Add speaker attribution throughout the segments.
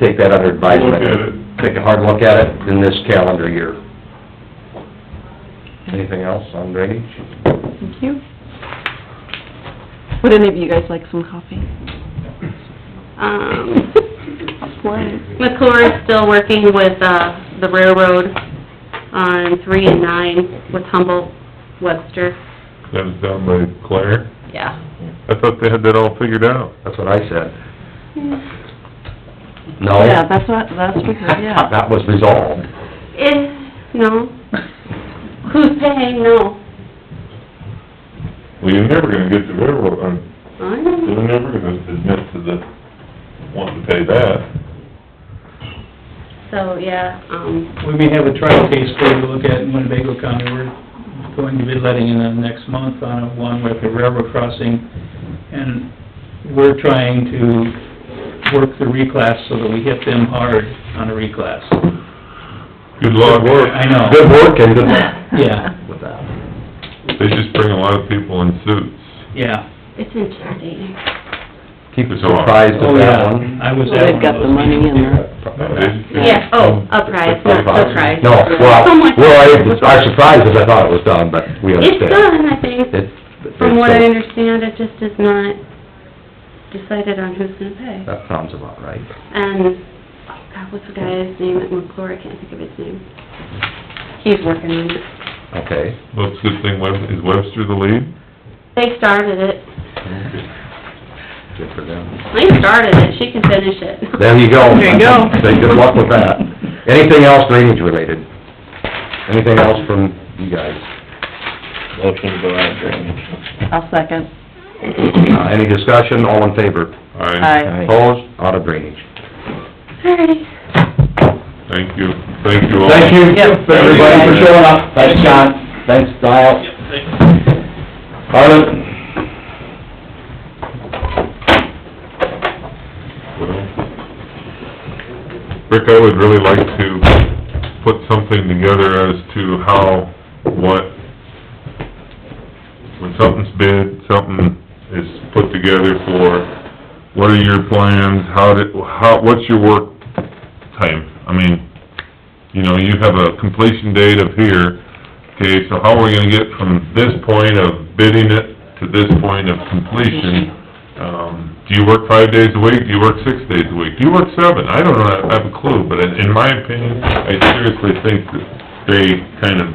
Speaker 1: take that under advisement.
Speaker 2: Look at it.
Speaker 1: Take a hard look at it in this calendar year. Anything else on drainage?
Speaker 3: Thank you. Would any of you guys like some coffee?
Speaker 4: Um, McClure is still working with, uh, the railroad on three and nine with Humboldt Webster.
Speaker 2: That was down by Claire.
Speaker 4: Yeah.
Speaker 2: I thought they had that all figured out.
Speaker 1: That's what I said. No?
Speaker 3: Yeah, that's what, that's what, yeah.
Speaker 1: That was resolved.
Speaker 4: Eh, no. Who's paying? No.
Speaker 2: Well, you're never gonna get the railroad, on
Speaker 4: I don't know.
Speaker 2: they're never gonna admit to the, wanting to pay that.
Speaker 4: So, yeah, um,
Speaker 5: We may have a trial case for you to look at in Winnebago County. We're going to be letting in the next month on a one with a railroad crossing. And we're trying to work the reclass so that we hit them hard on a reclass.
Speaker 2: Good luck.
Speaker 5: I know.
Speaker 1: Good work and good luck
Speaker 5: Yeah,
Speaker 1: with that.
Speaker 2: They just bring a lot of people in suits.
Speaker 5: yeah.
Speaker 4: it's intimidating.
Speaker 1: Keep us
Speaker 2: It's all-
Speaker 1: surprised
Speaker 5: Oh,
Speaker 1: with that
Speaker 5: yeah.
Speaker 1: one.
Speaker 5: I was
Speaker 3: Well,
Speaker 5: at
Speaker 3: they've
Speaker 5: one
Speaker 3: got the
Speaker 5: of those
Speaker 3: money in there.
Speaker 5: meetings.
Speaker 2: No, they-
Speaker 4: Yeah,
Speaker 1: Mm.
Speaker 4: oh, uprise, not surprise.
Speaker 1: No, well,
Speaker 4: Someone-
Speaker 1: well, I, our surprise is I thought it was done, but we
Speaker 4: It's
Speaker 1: understand.
Speaker 4: done, I think.
Speaker 1: It's-
Speaker 4: From what I
Speaker 1: it's- uh,
Speaker 4: understand, it just is not decided on who's gonna pay.
Speaker 1: That sounds about right.
Speaker 4: And, oh God, what's the guy's name at McClure, I can't think of his name. He's working on it.
Speaker 1: Okay.
Speaker 2: Well, it's a good oh, thing Web, is Webster the lead?
Speaker 4: They started it.
Speaker 1: Good for them.
Speaker 4: They started it, she can finish it.
Speaker 1: There you go.
Speaker 3: There you go.
Speaker 1: Say good luck with that. Anything else drainage related? Anything else from you guys?
Speaker 6: Motion to go out of drainage.
Speaker 3: I'll second.
Speaker 1: Uh, any discussion, all in favor?
Speaker 2: Aye.
Speaker 3: Aye.
Speaker 1: Opposed, out of drainage.
Speaker 4: Alrighty.
Speaker 2: Thank you, thank you all.
Speaker 1: Thank you,
Speaker 3: Yep.
Speaker 1: everybody, for showing up. Thanks, John. Thanks, Dial. Harlan?
Speaker 2: Rick, I would really like to put something together as to how, what, when something's bid, something is put together for, what are your plans, how did, how, what's your work time? I mean, you know, you have a completion date of here, okay, so how are we gonna get from this point of bidding it to this point of completion? Um, do you work five days a week, do you work six days a week, do you work seven? I don't know, I have a clue, but in, in my opinion, I seriously think that they kind of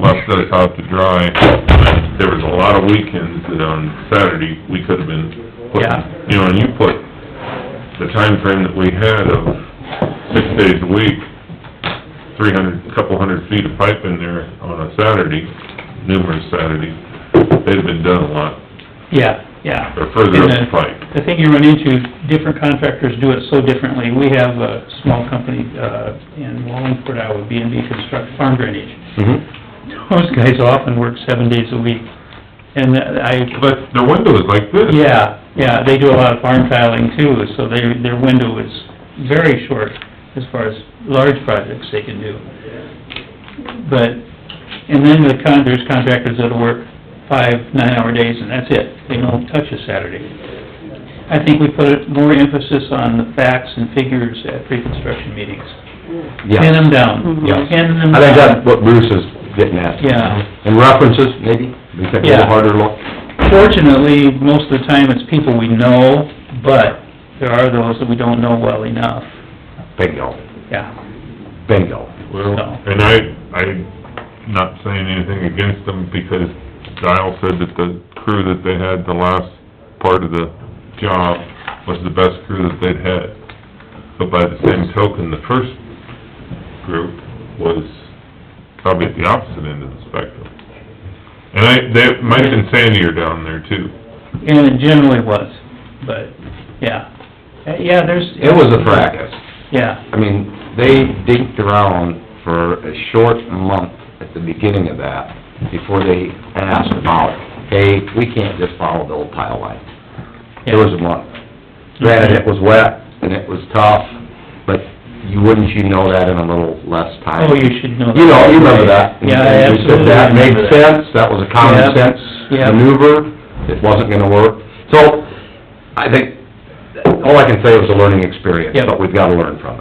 Speaker 2: left us out to dry. And There was a lot of weekends that on Saturday, we could've been putting,
Speaker 5: Yeah.
Speaker 2: you know, and you put the time frame that we had of six days a week, three hundred, couple hundred feet of pipe in there on a Saturday, numerous Saturdays, they'd have been done a lot,
Speaker 5: Yeah, yeah.
Speaker 2: or further up the
Speaker 5: And the-
Speaker 2: pipe.
Speaker 5: The thing you run into, different contractors do it so differently. We have a small company, uh, in Wallingford, Iowa, B and B Construct Farm Drainage.
Speaker 1: Mm-hmm.
Speaker 5: Those guys often work seven days a week, and I,
Speaker 2: But their window is like this.
Speaker 5: yeah, yeah, they do a lot of farm tiling too, so their, their window is very short as far as large projects they can do. But, and then the con, there's contractors that'll work five, nine-hour days and that's it, they don't touch a Saturday. I think we put more emphasis on the facts and figures at pre-construction meetings. Pin
Speaker 1: Yeah.
Speaker 5: them down,
Speaker 1: Yeah.
Speaker 5: pin them down.
Speaker 1: I think that's what Bruce is getting at.
Speaker 5: Yeah.
Speaker 1: And references, maybe? We take a little
Speaker 5: Yeah.
Speaker 1: harder look.
Speaker 5: Fortunately, most of the time it's people we know, but there are those that we don't know well enough,
Speaker 1: Bingo,
Speaker 5: yeah,
Speaker 1: bingo.
Speaker 2: Well,
Speaker 5: So.
Speaker 2: and I, I'm not saying anything against them, because Dial said that the crew that they had the last part of the job was the best crew that they'd had. But by the same token, the first group was probably at the opposite end of the spectrum. And I, they, might have been sandier down there too.
Speaker 5: and it generally was, but, yeah. Uh, Yeah, there's...
Speaker 1: It was a practice.
Speaker 5: Yeah,
Speaker 1: I mean, they dinked around for a short month at the beginning of that, before they asked about, hey, we can't just follow the old tile line. It was a month. Granted, it was wet and it was tough, but you, wouldn't you know that in a little less time?
Speaker 5: oh, you should know that.
Speaker 1: You know, you remember that.
Speaker 5: Yeah, I
Speaker 1: And we said
Speaker 5: absolutely
Speaker 1: That made
Speaker 5: remember that.
Speaker 1: sense, that was a common
Speaker 5: Yep,
Speaker 1: sense
Speaker 5: yep.
Speaker 1: maneuver, it wasn't gonna work. So, I think all I can say it was a learning experience,
Speaker 5: Yep.
Speaker 1: but we've gotta learn from it.